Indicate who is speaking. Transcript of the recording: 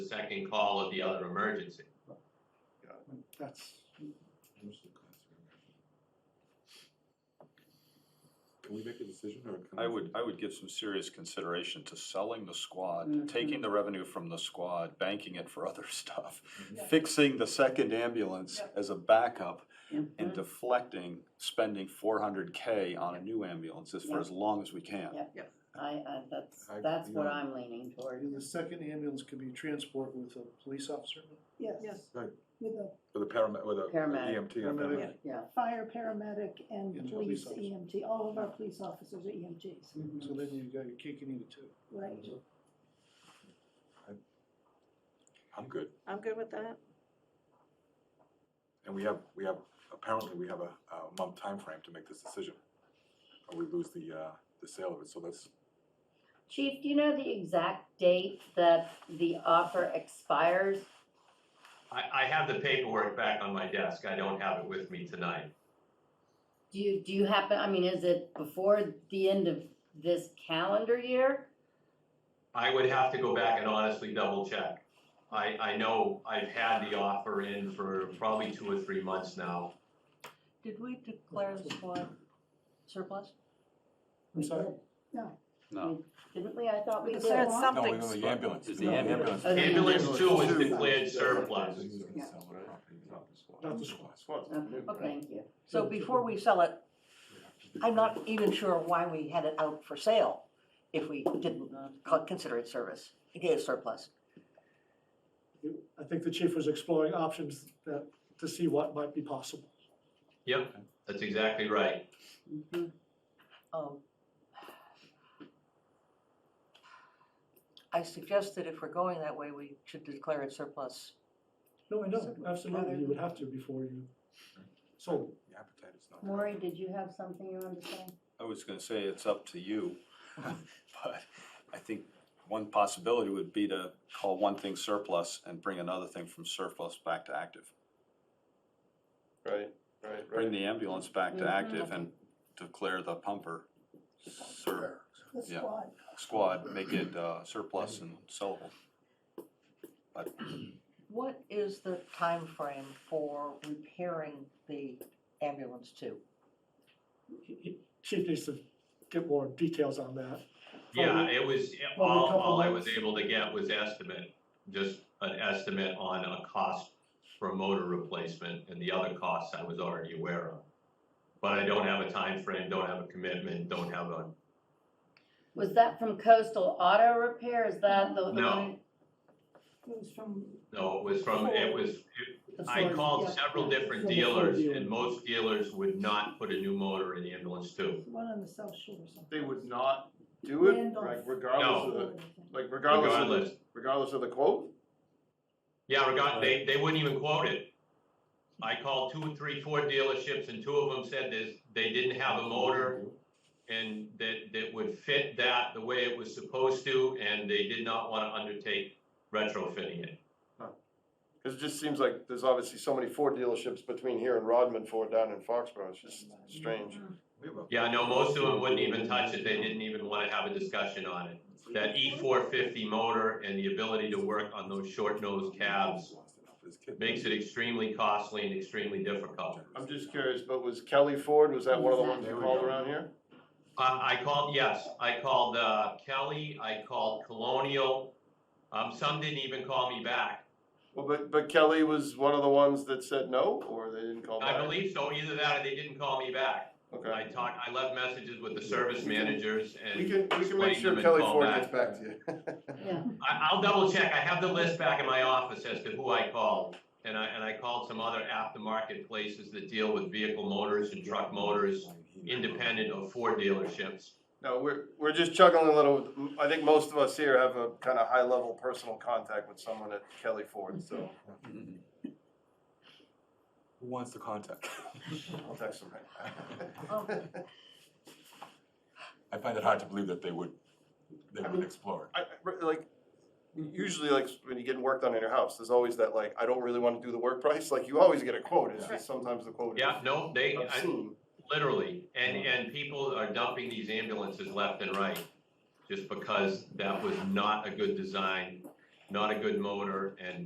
Speaker 1: main call of the other emergency.
Speaker 2: That's,
Speaker 3: Can we make a decision or? can
Speaker 4: I
Speaker 3: we-
Speaker 4: would, I would give some serious consideration to selling the
Speaker 5: Mm-hmm.
Speaker 4: squad, taking the revenue from the squad, banking it for other stuff,
Speaker 5: Yeah.
Speaker 4: fixing the second ambulance
Speaker 5: Yeah.
Speaker 4: as a backup, and
Speaker 5: Mhm.
Speaker 4: deflecting spending four hundred K on a new ambulance as for as long as we can.
Speaker 5: Yeah. I, I, that's,
Speaker 3: I-
Speaker 5: that's what
Speaker 3: yeah.
Speaker 5: I'm leaning toward.
Speaker 2: and the second ambulance could be transport with a police officer?
Speaker 6: Yes,
Speaker 3: Right.
Speaker 6: with a
Speaker 3: Or the paramedic, or the E the
Speaker 5: Paramedic.
Speaker 3: EMT. or
Speaker 2: Paramedic.
Speaker 3: paramedic.
Speaker 5: Yeah,
Speaker 6: fire paramedic and
Speaker 2: And police
Speaker 6: police
Speaker 2: officer.
Speaker 6: EMT, all of our police officers are EMTs,
Speaker 2: So then you've got your cake and eat it too.
Speaker 6: right?
Speaker 2: Mm-hmm.
Speaker 3: I'm good.
Speaker 7: I'm good with that.
Speaker 3: And we have, we have, apparently we have a, a month timeframe to make this decision. Or we lose the, uh, the sale of it, so that's,
Speaker 5: Chief, do you know the exact date that the offer expires?
Speaker 1: I, I have the paperwork back on my desk, I don't have it with me tonight.
Speaker 5: Do you, do you happen, I mean, is it before the end of this calendar year?
Speaker 1: I would have to go back and honestly double check. I, I know I've had the offer in for probably two or three months now.
Speaker 8: Did we declare the squad surplus?
Speaker 2: I'm sorry?
Speaker 4: No,
Speaker 5: Didn't we? I thought we
Speaker 6: With
Speaker 5: did.
Speaker 6: the Yeah.
Speaker 7: There's
Speaker 6: No,
Speaker 7: something.
Speaker 9: No, the ambulance.
Speaker 2: the No, ambulance.
Speaker 5: Okay.
Speaker 1: Ambulance two is declared surplus.
Speaker 2: Not the squad.
Speaker 5: Okay, Oh, Thank you.
Speaker 8: So before we sell it, I'm not even sure why we had it out for sale if we didn't co- consider it service, it is surplus.
Speaker 2: I think the chief was exploring options that, to see what might be possible.
Speaker 1: Yep, that's exactly right.
Speaker 5: Mhm.
Speaker 8: Um, I suggest that if we're going that way, we should declare it surplus.
Speaker 2: No, I know, absolutely, you would have to before you sold.
Speaker 3: the appetite is not.
Speaker 5: Maury, did you have something you wanted to say?
Speaker 4: I was gonna say it's up to you, but I think one possibility would be to call one thing surplus and bring another thing from surplus back to active.
Speaker 10: Right, right, right.
Speaker 4: Bring the ambulance back to
Speaker 5: Mhm.
Speaker 4: active and declare the pumper sur-
Speaker 6: The
Speaker 4: Yeah.
Speaker 6: squad,
Speaker 4: squad, make it uh, surplus and sellable. But
Speaker 8: What is the time frame for repairing the ambulance to?
Speaker 2: He- he- Chief needs to get more details on that.
Speaker 1: Yeah, it was, it-
Speaker 2: Probably a
Speaker 1: all,
Speaker 2: couple
Speaker 1: all I was
Speaker 2: months.
Speaker 1: able to get was estimate, just an estimate on a cost for motor replacement and the other costs I was already aware of. But I don't have a time frame. don't have a commitment, don't have a,
Speaker 5: Was that from Coastal Auto Repair? Is that the? the
Speaker 1: No.
Speaker 5: one-
Speaker 6: it was from,
Speaker 1: no, it was from, it was, I
Speaker 2: Sorry,
Speaker 1: called
Speaker 2: yeah.
Speaker 1: several different
Speaker 2: From the
Speaker 1: dealers
Speaker 2: dealer.
Speaker 1: and most dealers would not put a new motor in the ambulance too.
Speaker 6: one on the South Shore or something.
Speaker 10: They would not do it,
Speaker 6: Randolph.
Speaker 10: like regardless of
Speaker 6: Or
Speaker 2: Oh,
Speaker 10: the,
Speaker 6: anything.
Speaker 10: like regardless of the,
Speaker 1: Regardless,
Speaker 10: regardless of the quote?
Speaker 1: yeah, regard, they, they wouldn't even quote it. I called two, three, four dealerships and two of them said this, they didn't have a motor and that, that would fit that the way it was supposed to, and they did not want to undertake retrofitting it.
Speaker 10: Cause it just seems like there's obviously so many Ford dealerships between here and Rodman Ford down in Foxborough, it's just strange.
Speaker 3: We have a-
Speaker 1: Yeah, no, most of them wouldn't even touch it, they didn't even want to have a discussion on it. That E four fifty motor and the ability to work on those short nosed cabs makes it extremely costly and extremely difficult.
Speaker 10: I'm just curious, but was Kelly Ford, was that one of the ones you
Speaker 3: Exactly.
Speaker 10: called around here?
Speaker 1: Uh, I, I called, yes, I called, uh, Kelly, I called Colonial, um, some didn't even call me back.
Speaker 10: Well, but, but Kelly was one of the ones that said no, or they didn't call back?
Speaker 1: I believe so, either that or they didn't call me back. I
Speaker 10: Okay.
Speaker 1: talked, I left messages with the service managers
Speaker 10: We
Speaker 1: and
Speaker 10: can, we can make
Speaker 1: Explain them
Speaker 10: sure
Speaker 1: and
Speaker 10: Kelly
Speaker 1: call
Speaker 10: Ford
Speaker 1: back.
Speaker 10: gets back to you.
Speaker 5: Yeah,
Speaker 1: I, I'll double check, I have the list back in my office as to who I called. And I, and I called some other aftermarket places that deal with vehicle motors and truck motors, independent of Ford dealerships.
Speaker 10: No, we're, we're just chugging a little, I think most of us here have a kind of high-level personal contact with someone at Kelly Ford, so
Speaker 3: Who wants the contact?
Speaker 10: I'll text them right now.
Speaker 8: Oh.
Speaker 3: I find it hard to believe that they would, they
Speaker 10: I
Speaker 3: would
Speaker 10: mean,
Speaker 3: explore.
Speaker 10: I, I- like, usually like when you're getting work done in your house, there's always that like, I don't really want to do the work price, like you always get a quote, it's just sometimes the quote is
Speaker 1: Yeah, no, they, I,
Speaker 10: obscene.
Speaker 1: literally, and, and people are dumping these ambulances left and right. Just because that was not a good design not a good motor, and